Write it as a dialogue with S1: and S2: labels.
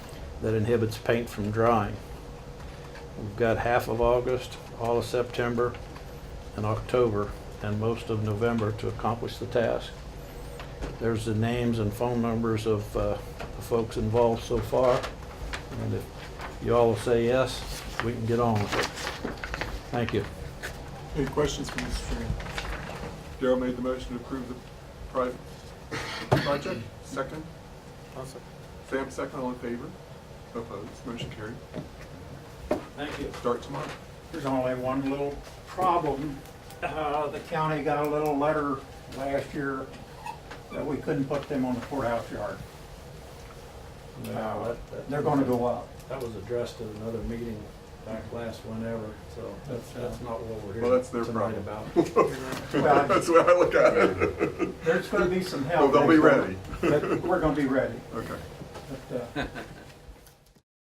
S1: that inhibits paint from drying. We've got half of August, all of September, and October, and most of November to accomplish the task. There's the names and phone numbers of uh, the folks involved so far, and if you all will say yes, we can get on with it. Thank you.
S2: Any questions for Mr. Sheehan? Darrell made the motion to approve the private project. Second? Sam, second, all in favor? Opposed? Motion carried.
S3: Thank you.
S2: Start tomorrow.
S3: There's only one little problem. Uh, The county got a little letter last year that we couldn't put them on the courthouse yard. Uh, They're gonna go up.
S1: That was addressed at another meeting back last whenever, so that's, that's not what we're
S2: Well, that's their
S1: here tonight
S2: problem.
S1: about.
S2: That's the way I look at it.
S3: There's gonna be some
S2: Well,
S3: help.
S2: they'll be ready.
S3: But We're gonna be ready.
S2: Okay.
S3: But, uh,